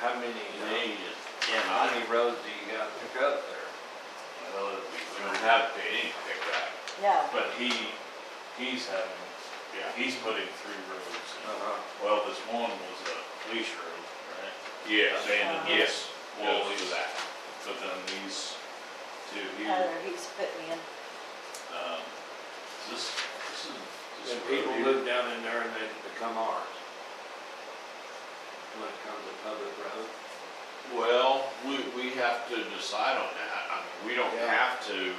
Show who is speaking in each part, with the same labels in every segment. Speaker 1: How many,
Speaker 2: They just, yeah,
Speaker 1: how
Speaker 2: I,
Speaker 1: many roads do you got to pick up there?
Speaker 2: well, we don't have to pay any kickback,
Speaker 3: No,
Speaker 2: but he, he's having,
Speaker 1: Yeah.
Speaker 2: he's putting three roads. in.
Speaker 1: Uh-huh.
Speaker 2: Well, this one was a leash road, right?
Speaker 4: Yes,
Speaker 2: Abandoned,
Speaker 3: Uh-huh.
Speaker 2: yes,
Speaker 4: we'll
Speaker 2: we'll
Speaker 4: do
Speaker 2: leave that,
Speaker 4: that.
Speaker 2: but then these two here,
Speaker 3: Tyler, he's put me in,
Speaker 2: um, is this, this is. this
Speaker 1: And
Speaker 2: road
Speaker 1: people
Speaker 2: here?
Speaker 1: live down in there and they become ours. When it comes to public road.
Speaker 4: Well, we, we have to decide on that. I mean, we don't
Speaker 1: Yeah.
Speaker 4: have to,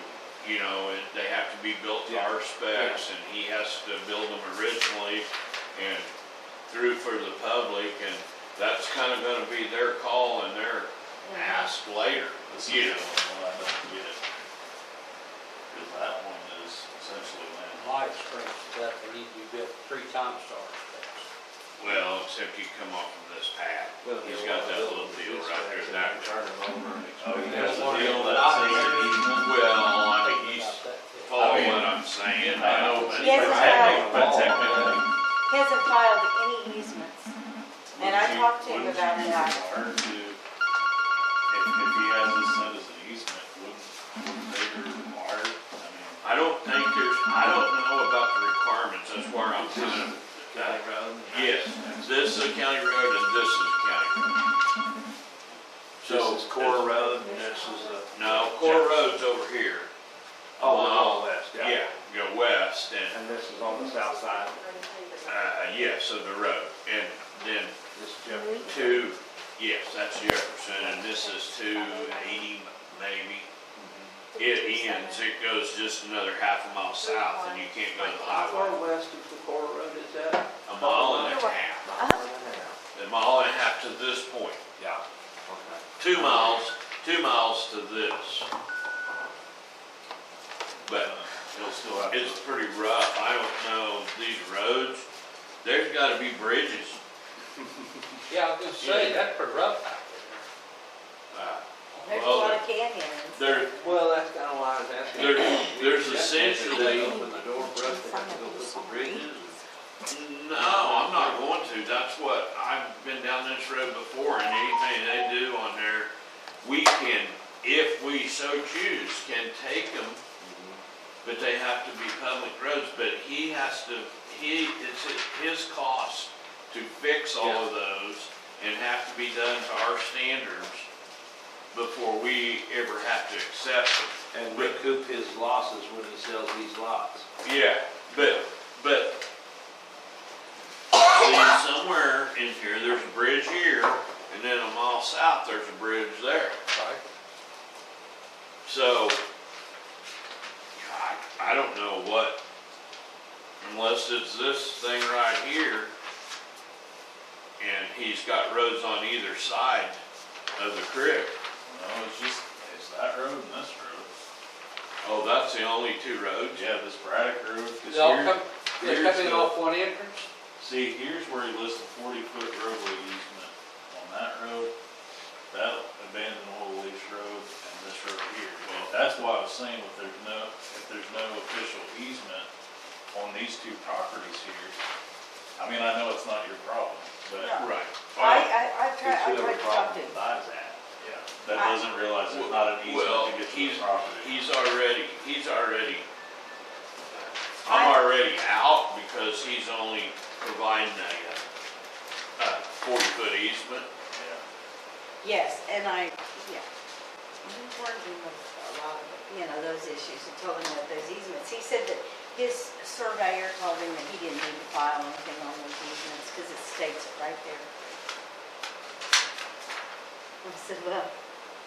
Speaker 4: you know, it- they have to be built to our specs and he has to build them originally and through for the public and that's kind of gonna be their call and their ask later,
Speaker 2: This
Speaker 4: you know.
Speaker 2: is the one I don't get. Cause that one is essentially land.
Speaker 5: Live springs, that they need to be built three times to our specs.
Speaker 4: Well, except you come off of this path.
Speaker 1: Doesn't
Speaker 4: He's
Speaker 1: get a lot of
Speaker 4: got that little
Speaker 1: buildings
Speaker 4: deal
Speaker 1: these
Speaker 4: right there,
Speaker 1: days, and
Speaker 4: that-
Speaker 1: they Turn them over and
Speaker 2: Oh,
Speaker 1: expand.
Speaker 2: yeah, that's the deal,
Speaker 5: But
Speaker 2: that's
Speaker 5: I
Speaker 2: in the
Speaker 5: think-
Speaker 2: easement.
Speaker 4: Well, I
Speaker 5: Think
Speaker 4: think he's
Speaker 5: about that, yeah.
Speaker 4: following what I'm saying, I know, but.
Speaker 3: Yes,
Speaker 2: But
Speaker 3: it's
Speaker 2: technically-
Speaker 1: right.
Speaker 2: But technically.
Speaker 3: He hasn't filed any easements. And I
Speaker 2: Wouldn't you-
Speaker 3: talked to him
Speaker 2: wouldn't
Speaker 3: about
Speaker 2: you
Speaker 3: that.
Speaker 2: Hard to, if, if he has this set as an easement, wouldn't, wouldn't they be required? I mean,
Speaker 4: I don't think there's, I don't know about the requirements, that's where I'm kind of.
Speaker 1: County road.
Speaker 4: Yes, this is a county road and this is a county road. So.
Speaker 1: This is Core Road and this is a.
Speaker 4: No, Core Road's over here.
Speaker 1: Oh, we're all west, yeah.
Speaker 4: Yeah, go west and,
Speaker 1: And this is on the south side.
Speaker 4: uh, yes, of the road. And then
Speaker 1: This is Jefferson.
Speaker 4: two, yes, that's Jefferson and this is two eighty maybe. It ends, it goes just another half a mile south and you can't go to the
Speaker 1: How
Speaker 4: highway.
Speaker 1: far west of the Core Road is that?
Speaker 4: A mile and a half, a mile and a half to this point.
Speaker 1: Yeah.
Speaker 4: two miles, two miles to this. But
Speaker 2: he'll still have.
Speaker 4: it's pretty rough, I don't know, these roads, there's gotta be bridges.
Speaker 5: Yeah, I was gonna say, that's pretty rough out there.
Speaker 4: Uh,
Speaker 3: There's a
Speaker 4: Well,
Speaker 3: lot of canyons.
Speaker 4: There,
Speaker 1: Well, that's kind of why I was asking.
Speaker 4: there, there's
Speaker 1: They
Speaker 4: essentially,
Speaker 1: open the door for us to have to go put the bridges.
Speaker 4: no, I'm not going to, that's what, I've been down this road before, and anything they do on there, we can, if we so choose, can take them But they have to be public roads, but he has to, he, it's at his cost to fix all of those and have to be done to our standards before we ever have to accept it.
Speaker 1: And recoup his losses when he sells these lots.
Speaker 4: Yeah. But, but, see, somewhere in here, there's a bridge here, and then a mile south, there's a bridge there.
Speaker 5: Right.
Speaker 4: So, I, I don't know what, unless it's this thing right here, and he's got roads on either side of the creek.
Speaker 2: No, it's just, it's that road and this road.
Speaker 4: Oh, that's the only two roads?
Speaker 2: Yeah, this Braddock Road,
Speaker 5: They all
Speaker 2: cause
Speaker 5: come,
Speaker 2: here,
Speaker 5: they
Speaker 2: here's
Speaker 5: come in
Speaker 2: the-
Speaker 5: off one entrance?
Speaker 2: see, here's where he lists the forty foot roadway easement on that road, that abandoned oil lease road, and this road here. Well, that's why I was saying if there's no, if there's no official easement on these two properties here, I mean, I know it's not your problem, but.
Speaker 3: No.
Speaker 4: Right.
Speaker 3: I, I, I
Speaker 1: It's
Speaker 3: tried, I
Speaker 1: whoever
Speaker 3: tried to
Speaker 1: problem
Speaker 3: talk to him.
Speaker 1: buys that.
Speaker 2: Yeah, that doesn't realize there's not an
Speaker 4: Well,
Speaker 2: easement to get to
Speaker 4: he's-
Speaker 2: the property.
Speaker 4: He's already, he's already, I'm already out because he's only providing a, uh, a forty foot easement.
Speaker 2: Yeah.
Speaker 3: Yes, and I, yeah. We warned him of a lot of, you know, those issues and told him that those easements, he said that his surveyor told him that he didn't need to file anything on those easements because it states it right there. I said, well,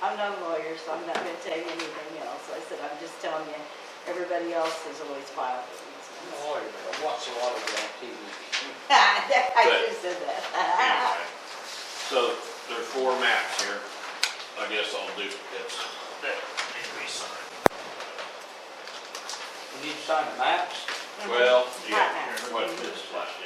Speaker 3: I'm not a lawyer, so I'm not gonna tell you anything else. I said, I'm just telling you, everybody else has always filed their easements.
Speaker 5: Oh, I watch a lot of it on TV.
Speaker 3: I just said that.
Speaker 4: Anyway, So there are four maps here. I guess I'll do this. That needs to be signed.
Speaker 5: You need to sign the maps?
Speaker 3: Mhm.
Speaker 4: Well,
Speaker 3: Hot
Speaker 4: yeah,
Speaker 3: maps.
Speaker 4: what is this like?
Speaker 3: uh,